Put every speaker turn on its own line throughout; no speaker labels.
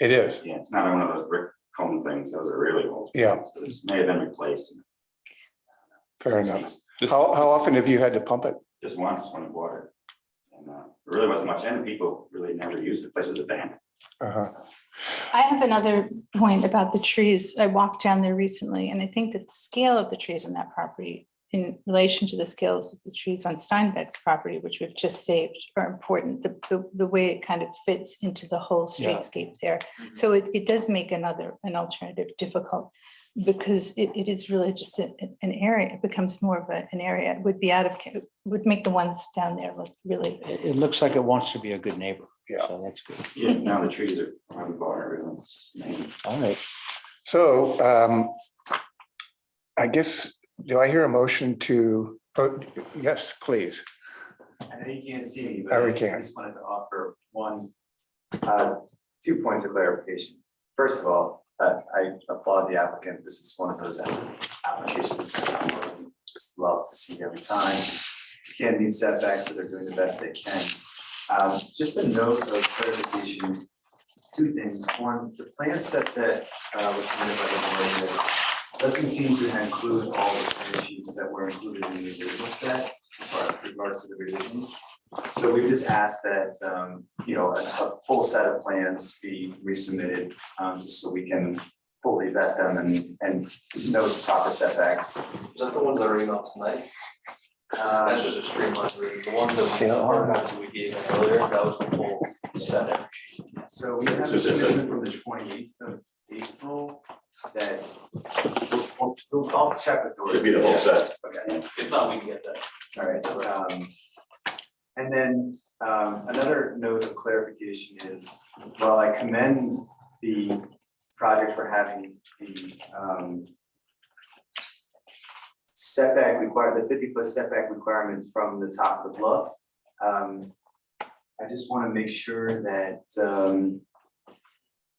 It is.
Yeah, it's not one of those brick cone things, those are really old.
Yeah.
So It's may have been replaced. in
Fair
the
enough.
60s.
This-
How, how often have you had to pump it?
Just once when it watered. And uh, there really wasn't much, and people really never used it, place was abandoned.
Uh-huh.
I have another point about the trees. I walked down there recently and I think that the scale of the trees on that property in relation to the scales of the trees on Steinbeck's property, which we've just saved, are important. The, the, the way it kind of fits into the whole
Yeah.
streetscape there. So it, it does make another, an alternative difficult because it, it is really just a- an area, it becomes more of a- an area, It would be out of, ca- would make the ones down there look really
It, it looks like it wants to be a good neighbor.
Yeah.
So that's good.
Yeah, now the trees are on the water, really. main-
All right.
So um, I guess, do I hear a motion to, oh, yes, please.
I know you can't see me, but
Oh, we
I
can't.
just wanted to offer one, uh, two points of clarification. First of all, uh, I applaud the applicant. This is one of those applications that I would just love to see every time. Can't meet setbacks, but they're doing the best they can. Um, just a note of clarification, two things. One, the plan set that, uh, was submitted by the board here doesn't seem to include all the plan sheets that were included in the original set, or uh, regards to the revisions. So we just asked that, um, you know, a, a full set of plans be resubmitted, um, just so we can fully vet them and, and know the proper setbacks.
Is that the ones that are emailed tonight?
Uh,
That's just a streamlined reading. The ones that are not that we gave earlier, that was the full set.
So we have a submission from the twenty eighth of April that we'll, we'll, I'll check with Doris.
Should be the whole set.
Okay.
If not, we can get that.
All right, um, and then, um, another note of clarification is, while I commend the project for having the, um, setback require, the fifty foot setback requirement from the top of the bluff, um, I just wanna make sure that, um,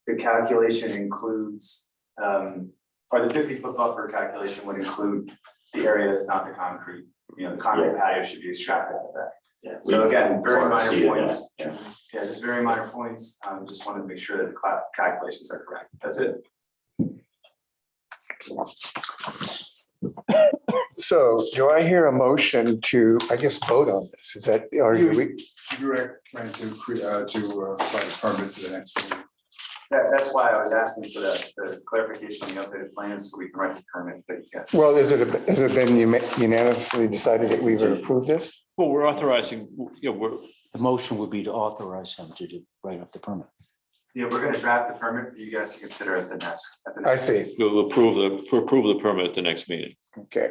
the calculation includes, um, or the fifty foot buffer calculation would include the area that's not the concrete you know, the concrete patio should be extracted out of that.
Yeah,
So
we-
again,
Sort
very
of
minor
see it, yeah,
points.
yeah.
Yeah, just very minor points. Um, just wanted to make sure that the cla- calculations are correct. That's it.
So do I hear a motion to, I guess, vote on this? Is that, are you,
direct plan to create, uh, to uh, apply the permit to the next meeting.
That, that's why I was asking for the, the clarification on the updated plans, so we can write the permit that you guys.
well, is it, has it been unanimously decided that we would approve this?
Well, we're authorizing, you know, we're,
The motion would be to authorize him to do, write up the permit.
Yeah, we're gonna draft the permit for you guys to consider at the next, at the next.
I see.
we'll approve the, approve the permit at the next meeting.
Okay.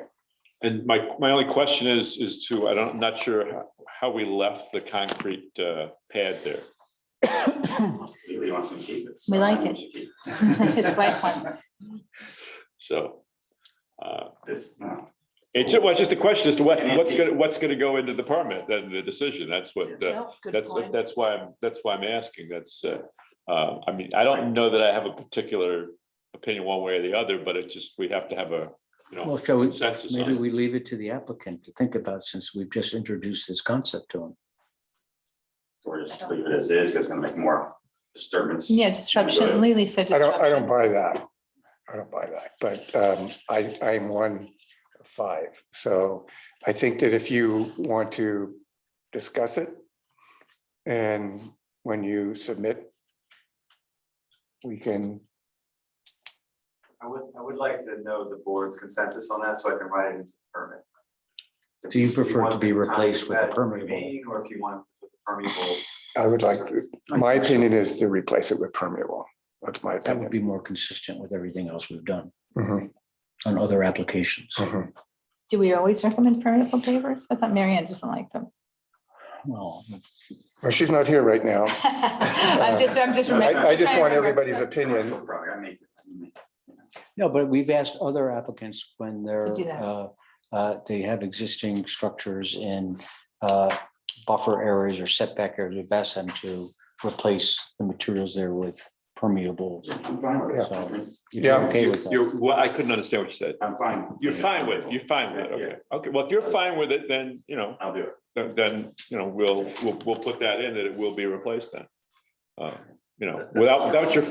And my, my only question is, is to, I don't, I'm not sure how- how we left the concrete uh, pad there.
Really wants me to keep it. so
We like
I
it.
should keep
It's like one.
So uh,
This, no,
it's, ju- well, it's just a question as to what, what's gonna, what's gonna go into the permit, then the decision. That's what, uh, that's, that's why, I'm that's why I'm asking. That's, uh, uh, I mean, I don't know that I have a particular opinion one way or the other, but it just, we have to have a, you
Well,
know,
shall we,
consensus on
maybe
it.
we leave it to the applicant to think about since we've just introduced this concept to him.
so we're just leave it as is, 'cause it's gonna make more disturbance.
Yeah, disruption. Lily said.
I don't, I
disruption.
don't buy that. I don't buy that, but um, I, I'm one of five. So I think that if you want to discuss it and when you submit, we can,
I would, I would like to know the board's consensus on that, so I can write it into the permit. If
Do you
if
prefer
want
to be
the concrete
replaced with a
pad to
permeable?
remain, Or if you want to put the permeable.
I would like,
surface.
my opinion is to replace it with permeable. That's my
That would
opinion.
be more consistent with everything else we've done
Mhm,
on other applications.
mhm.
Do we always recommend permeable pavers? I thought Marianne doesn't like them.
Well,
Well, she's not here right now.
I'm just, I'm just. remem-
I, I just
trying
want
to remember.
everybody's opinion.
Commercial property, I make it, I make it.
no, but we've asked other applicants when they're,
do that.
uh, uh, they have existing structures in uh, buffer areas or setback areas. We've asked them to replace the materials there with permeable.
I'm fine with it.
Yeah.
I mean,
If you're
Yeah.
Okay with that.
You're, well, I couldn't understand what you said.
I'm fine.
You're fine with, it. you're fine with it, okay, okay, well, if you're fine with it, then, you know,
I'll do it.
then- then, you know, we'll, we'll, we'll put that in, that it will be replaced then. Uh, You know, without, without your